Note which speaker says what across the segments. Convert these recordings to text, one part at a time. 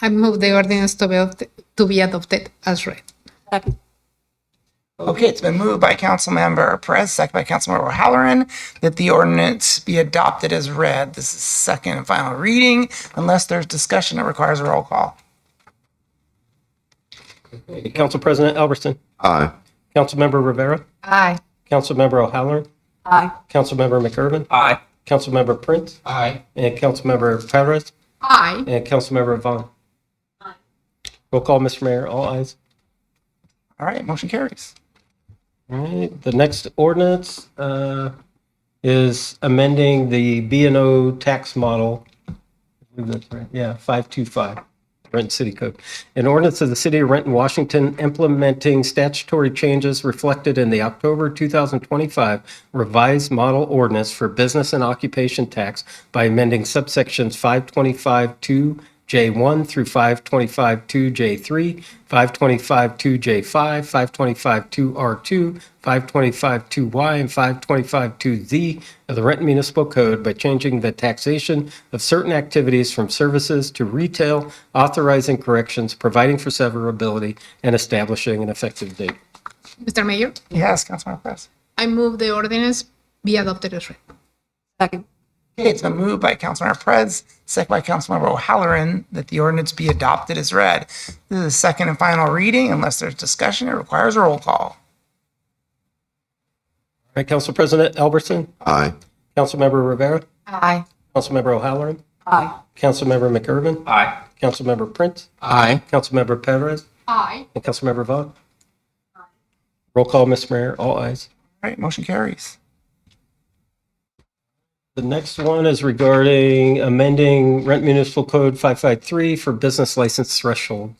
Speaker 1: I move the ordinance to be adopted, to be adopted as read.
Speaker 2: Second.
Speaker 3: Okay, it's been moved by Councilmember Perez, second by Councilmember O'Halloran, that the ordinance be adopted as read. This is second and final reading unless there's discussion that requires a roll call.
Speaker 4: Council President Elverston.
Speaker 5: Aye.
Speaker 4: Councilmember Rivera.
Speaker 1: Aye.
Speaker 4: Councilmember O'Halloran.
Speaker 2: Aye.
Speaker 4: Councilmember McIrvin.
Speaker 3: Aye.
Speaker 4: Councilmember Prince.
Speaker 3: Aye.
Speaker 4: And Councilmember Perez.
Speaker 1: Aye.
Speaker 4: And Councilmember Vaughn. Roll call, Mr. Mayor. All ayes.
Speaker 3: All right, motion carries.
Speaker 4: All right. The next ordinance uh, is amending the B and O tax model. I believe that's right. Yeah, 525. Renton City Code. An ordinance of the City of Renton, Washington implementing statutory changes reflected in the October 2025 revised model ordinance for business and occupation tax by amending subsections 525-2J1 through 525-2J3, 525-2J5, 525-2R2, 525-2Y, and 525-2Z of the Renton Municipal Code by changing the taxation of certain activities from services to retail, authorizing corrections, providing for severability, and establishing an effective date.
Speaker 1: Mr. Mayor,
Speaker 3: Yes, Councilmember Perez.
Speaker 1: I move the ordinance be adopted as read.
Speaker 2: Second.
Speaker 3: Okay, it's been moved by Councilmember Perez, second by Councilmember O'Halloran, that the ordinance be adopted as read. This is second and final reading unless there's discussion that requires a roll call.
Speaker 4: All right, Council President Elberson,
Speaker 5: Aye.
Speaker 4: Councilmember Rivera,
Speaker 1: Aye.
Speaker 4: Councilmember O'Halloran,
Speaker 2: Aye.
Speaker 4: Councilmember McIrvin,
Speaker 3: Aye.
Speaker 4: Councilmember Prince,
Speaker 3: Aye.
Speaker 4: Councilmember Perez,
Speaker 1: Aye.
Speaker 4: and Councilmember Vaughn. Roll call, Mr. Mayor, all ayes.
Speaker 3: All right, motion carries.
Speaker 4: The next one is regarding amending Rent Municipal Code 553 for business license threshold.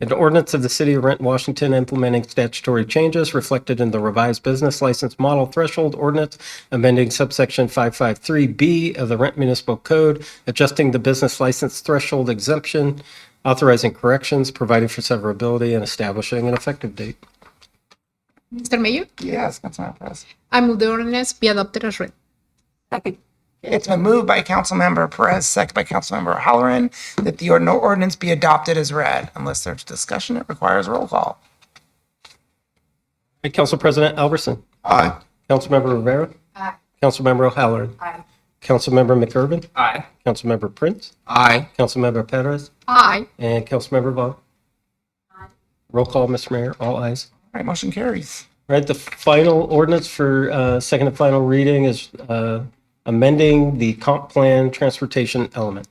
Speaker 4: An ordinance of the City of Rent, Washington implementing statutory changes reflected in the revised business license model threshold ordinance, amending subsection 553B of the Rent Municipal Code, adjusting the business license threshold exemption, authorizing corrections, providing for severability, and establishing an effective date.
Speaker 1: Mr. Mayor,
Speaker 3: Yes, Councilmember Perez.
Speaker 1: I move the ordinance be adopted as read.
Speaker 2: Second.
Speaker 3: It's been moved by Councilmember Perez, second by Councilmember Halloran, that the ordin- ordinance be adopted as read. Unless there's discussion, it requires roll call.
Speaker 4: Hey, Council President Albertson,
Speaker 5: Aye.
Speaker 4: Councilmember Rivera,
Speaker 1: Aye.
Speaker 4: Councilmember O'Halloran,
Speaker 2: Aye.
Speaker 4: Councilmember McIrvin,
Speaker 3: Aye.
Speaker 4: Councilmember Prince,
Speaker 3: Aye.
Speaker 4: Councilmember Perez,
Speaker 1: Aye.
Speaker 4: and Councilmember Vaughn. Roll call, Mr. Mayor, all ayes.
Speaker 3: All right, motion carries.
Speaker 4: All right, the final ordinance for uh, second and final reading is uh, amending the comp plan transportation element.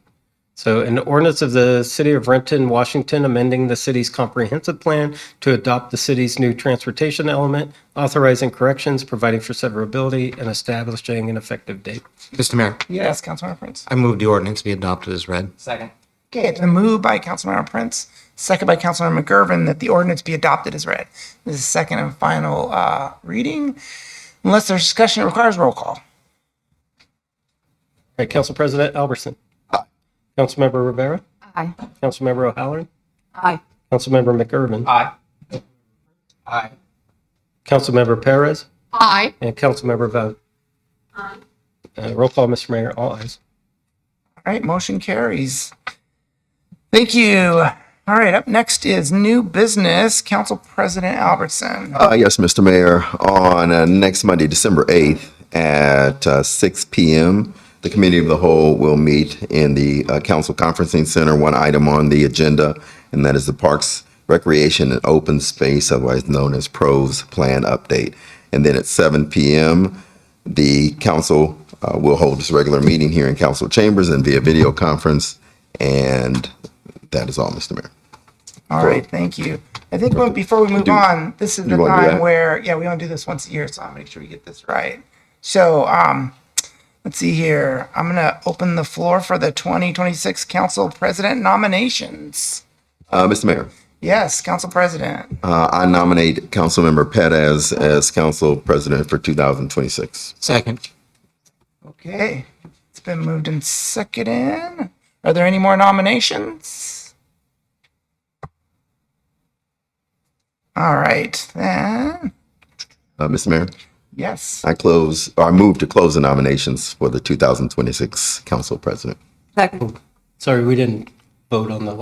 Speaker 4: So an ordinance of the City of Renton, Washington, amending the city's comprehensive plan to adopt the city's new transportation element, authorizing corrections, providing for severability, and establishing an effective date.
Speaker 6: Mr. Mayor,
Speaker 3: Yes, Councilmember Prince.
Speaker 6: I move the ordinance be adopted as read.
Speaker 3: Okay, it's been moved by Councilmember Prince, second by Councilmember McGurven, that the ordinance be adopted as read. This is second and final uh, reading. Unless there's discussion, it requires roll call.
Speaker 4: All right, Council President Albertson. Councilmember Rivera.
Speaker 2: Aye.
Speaker 4: Councilmember O'Halloran.
Speaker 2: Aye.
Speaker 4: Councilmember McIrvin.
Speaker 3: Aye. Aye.
Speaker 4: Councilmember Perez.
Speaker 1: Aye.
Speaker 4: And Councilmember Vaughn. Uh, Roll call, Mr. Mayor, all ayes.
Speaker 3: All right, motion carries. Thank you. All right, up next is new business, Council President Albertson.
Speaker 5: Uh, yes, Mr. Mayor, on uh, next Monday, December 8th at uh, 6 p.m., the Committee of the Whole will meet in the uh, Council Conferencing Center. One item on the agenda, and that is the Parks, Recreation, and Open Space, otherwise known as PROS Plan Update. And then at 7 p.m., the council uh, will hold its regular meeting here in council chambers and via video conference. And that is all, Mr. Mayor.
Speaker 3: All right, thank you. I think when- before we move
Speaker 5: Do-
Speaker 3: on, this is the
Speaker 5: you wanna do
Speaker 3: time
Speaker 5: that?
Speaker 3: where, yeah, we only do this once a year, so I'll make sure we get this right. So, um, let's see here. I'm gonna open the floor for the 2026 council president nominations.
Speaker 5: Uh, Mr. Mayor.
Speaker 3: Yes, council president.
Speaker 5: Uh, I nominate Councilmember Perez as council president for 2026.
Speaker 6: Second.
Speaker 3: Okay, it's been moved and seconded. Are there any more nominations? All right, then.
Speaker 5: Uh, Mr. Mayor,
Speaker 3: Yes.
Speaker 5: I close, or I move to close the nominations for the 2026 council president.
Speaker 2: Second.
Speaker 4: Sorry, we didn't vote on the